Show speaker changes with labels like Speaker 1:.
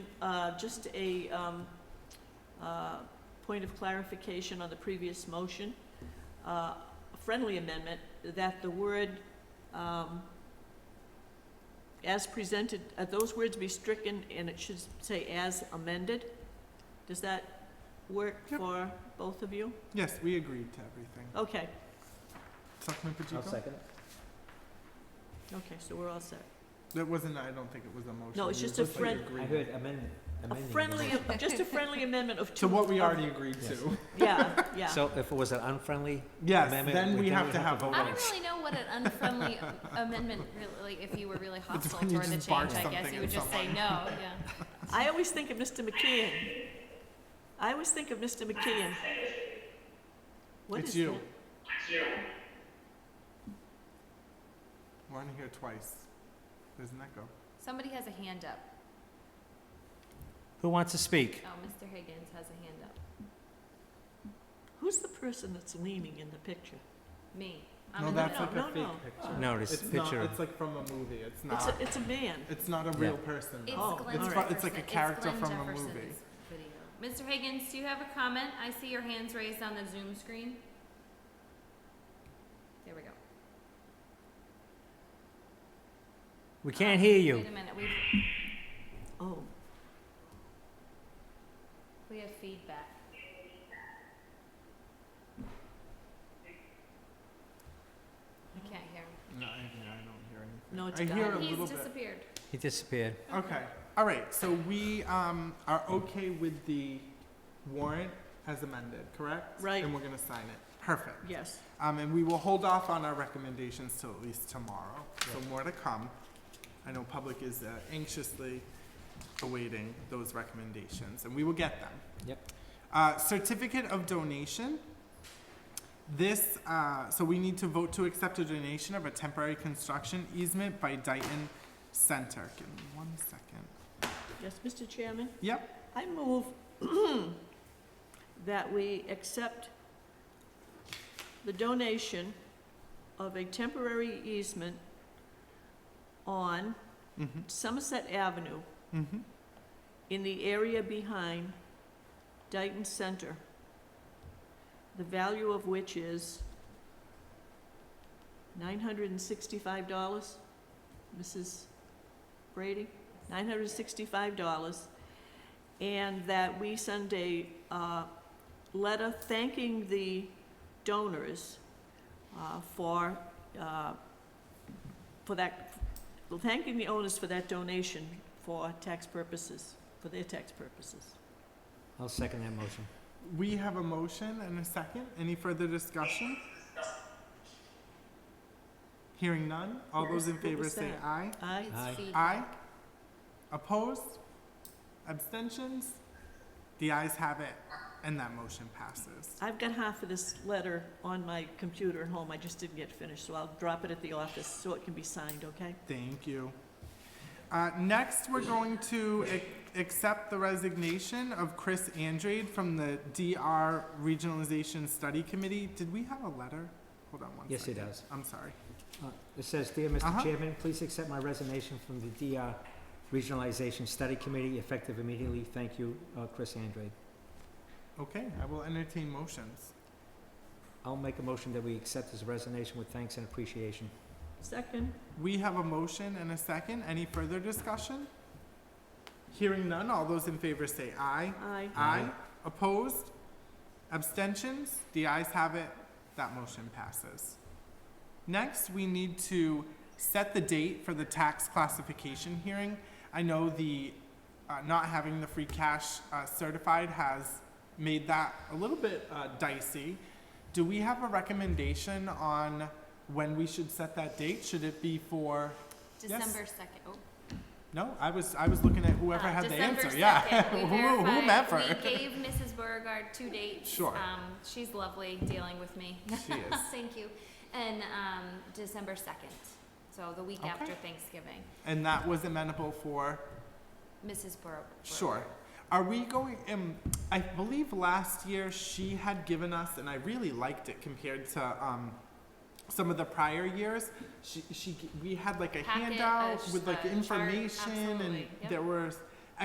Speaker 1: uh, just a, um, uh, point of clarification on the previous motion. Uh, a friendly amendment that the word, um, as presented, uh, those words be stricken and it should say as amended. Does that work
Speaker 2: Yep.
Speaker 1: for both of you?
Speaker 2: Yes, we agreed to everything.
Speaker 1: Okay,
Speaker 2: Selectman
Speaker 3: I'll
Speaker 2: Pacheco?
Speaker 3: second it.
Speaker 1: okay, so we're all set.
Speaker 2: That wasn't, I don't think it was a motion.
Speaker 1: No, it's
Speaker 2: It was
Speaker 1: just a
Speaker 2: like
Speaker 1: friend-
Speaker 3: I
Speaker 2: agreement.
Speaker 3: heard amendment,
Speaker 1: A
Speaker 3: amending. the
Speaker 1: friendly,
Speaker 3: motion.
Speaker 1: just a friendly amendment of two.
Speaker 2: To what we
Speaker 1: of-
Speaker 2: already agreed
Speaker 3: Yes.
Speaker 2: to.
Speaker 1: Yeah, yeah.
Speaker 3: So if it was an unfriendly,
Speaker 2: Yes,
Speaker 3: Amendment,
Speaker 2: then
Speaker 3: we-
Speaker 2: we
Speaker 3: then
Speaker 2: have to have a
Speaker 4: I don't
Speaker 2: vote.
Speaker 4: really know what an unfriendly am- amendment really, like, if you were really hostile
Speaker 2: when you
Speaker 4: toward the
Speaker 2: just bark
Speaker 4: change, I guess
Speaker 2: something
Speaker 4: you would
Speaker 2: at
Speaker 4: just say no,
Speaker 2: someone.
Speaker 4: yeah.
Speaker 1: I always think of Mr. McKeon. I always think of Mr. McKeon. What
Speaker 2: It's
Speaker 1: is
Speaker 2: you.
Speaker 1: that?
Speaker 2: We're on here twice. There's an echo.
Speaker 4: Somebody has a hand up.
Speaker 3: who wants to speak?
Speaker 4: Oh, Mr. Higgins has a hand up.
Speaker 1: Who's the person that's leaning in the picture?
Speaker 4: Me. I'm
Speaker 2: No,
Speaker 4: in the
Speaker 2: that's
Speaker 1: no,
Speaker 2: like
Speaker 4: middle.
Speaker 1: no,
Speaker 2: a fake
Speaker 1: no.
Speaker 2: picture.
Speaker 3: No, this
Speaker 2: It's not,
Speaker 3: picture.
Speaker 2: it's like from a movie. It's
Speaker 1: It's
Speaker 2: not,
Speaker 1: a, it's a man.
Speaker 2: it's not a
Speaker 3: Yeah.
Speaker 2: real person.
Speaker 4: It's
Speaker 1: Oh,
Speaker 4: Glenn
Speaker 1: it's
Speaker 2: fu- it's
Speaker 4: Jefferson.
Speaker 2: like a character
Speaker 4: Glenn
Speaker 2: from a
Speaker 4: Jefferson's
Speaker 2: movie.
Speaker 4: video. Mr. Higgins, do you have a comment? I see your hands raised on the Zoom screen. There we go.
Speaker 3: We can't hear you.
Speaker 4: Wait a minute, we've,
Speaker 1: Oh,
Speaker 4: we have feedback. I can't hear him.
Speaker 2: No, I, yeah, I don't hear anything.
Speaker 1: No, it's
Speaker 2: I hear a
Speaker 1: gone.
Speaker 2: little
Speaker 4: He's
Speaker 2: bit.
Speaker 4: disappeared.
Speaker 3: He disappeared.
Speaker 2: Okay, all right, so we, um, are okay with the warrant as amended, correct?
Speaker 1: Right.
Speaker 2: And we're gonna sign it. Perfect.
Speaker 1: yes.
Speaker 2: Um, and we will hold off on our recommendations till at least tomorrow, so more to come. I know public is uh, anxiously awaiting those recommendations, and we will get them.
Speaker 3: Yep.
Speaker 2: Uh, certificate of donation. This, uh, so we need to vote to accept a donation of a temporary construction easement by Dayton Center. Give me one second.
Speaker 1: Yes, Mr. Chairman?
Speaker 2: Yep.
Speaker 1: I move that we accept the donation of a temporary easement on
Speaker 2: Mm-hmm,
Speaker 1: Somerset Avenue
Speaker 2: mm-hmm.
Speaker 1: in the area behind Dayton Center, the value of which is nine hundred and sixty-five dollars, Mrs. Brady, nine hundred and sixty-five dollars, and that we send a, uh, letter thanking the donors, uh, for, uh, for that, thanking the owners for that donation for tax purposes, for their tax purposes.
Speaker 3: I'll second that motion.
Speaker 2: We have a motion and a second. Any further discussion? Hearing none. All those in
Speaker 1: What
Speaker 2: favor
Speaker 1: was
Speaker 2: say
Speaker 1: that?
Speaker 2: aye.
Speaker 1: Aye,
Speaker 4: It's
Speaker 3: Aye.
Speaker 4: feedback.
Speaker 2: Aye. Opposed? Abstentions? The ayes have it, and that motion passes.
Speaker 1: I've got half of this letter on my computer at home, I just didn't get finished, so I'll drop it at the office so it can be signed, okay?
Speaker 2: Thank you. Uh, next, we're going to ac- accept the resignation of Chris Andrade from the DR Regionalization Study Committee. Did we have a letter? Hold on one
Speaker 3: Yes, it
Speaker 2: second.
Speaker 3: does.
Speaker 2: I'm sorry.
Speaker 3: Uh, It says, "Dear
Speaker 2: Uh-huh.
Speaker 3: Mr. Chairman, please accept my resignation from the DR Regionalization Study Committee effective immediately. Thank you, uh, Chris Andrade."
Speaker 2: Okay, I will entertain motions.
Speaker 3: I'll make a motion that we accept his resignation with thanks and appreciation.
Speaker 1: Second,
Speaker 2: We have a motion and a second. Any further discussion? Hearing none, all those in favor say aye.
Speaker 1: aye.
Speaker 2: Aye.
Speaker 3: Aye.
Speaker 2: Opposed? Abstentions? The ayes have it. That motion passes. Next, we need to set the date for the tax classification hearing. I know the, uh, not having the free cash, uh, certified has made that a little bit, uh, dicey. Do we have a recommendation on when we should set that date? Should it be for, Yes.
Speaker 4: December second, oh.
Speaker 2: no, I was, I was looking at whoever
Speaker 4: Uh,
Speaker 2: had the
Speaker 4: December
Speaker 2: answer, yeah.
Speaker 4: 2nd,
Speaker 2: Who-
Speaker 4: we verified-
Speaker 2: Whomever.
Speaker 4: We gave Mrs. Beauregard two dates.
Speaker 2: Sure.
Speaker 4: Um, she's lovely dealing with me.
Speaker 2: She is.
Speaker 4: Thank you. And, um, December second, so the week
Speaker 2: Okay.
Speaker 4: after Thanksgiving,
Speaker 2: And that was amenable for
Speaker 4: Mrs. Bor- Beauregard.
Speaker 2: Sure. Are we going, um, I believe last year she had given us, and I really liked it compared to, um, some of the prior years, she, she, g- we had like a
Speaker 4: Packet, uh,
Speaker 2: handout
Speaker 4: sh-
Speaker 2: with like
Speaker 4: uh, chart,
Speaker 2: information and
Speaker 4: absolutely, yep.
Speaker 2: there were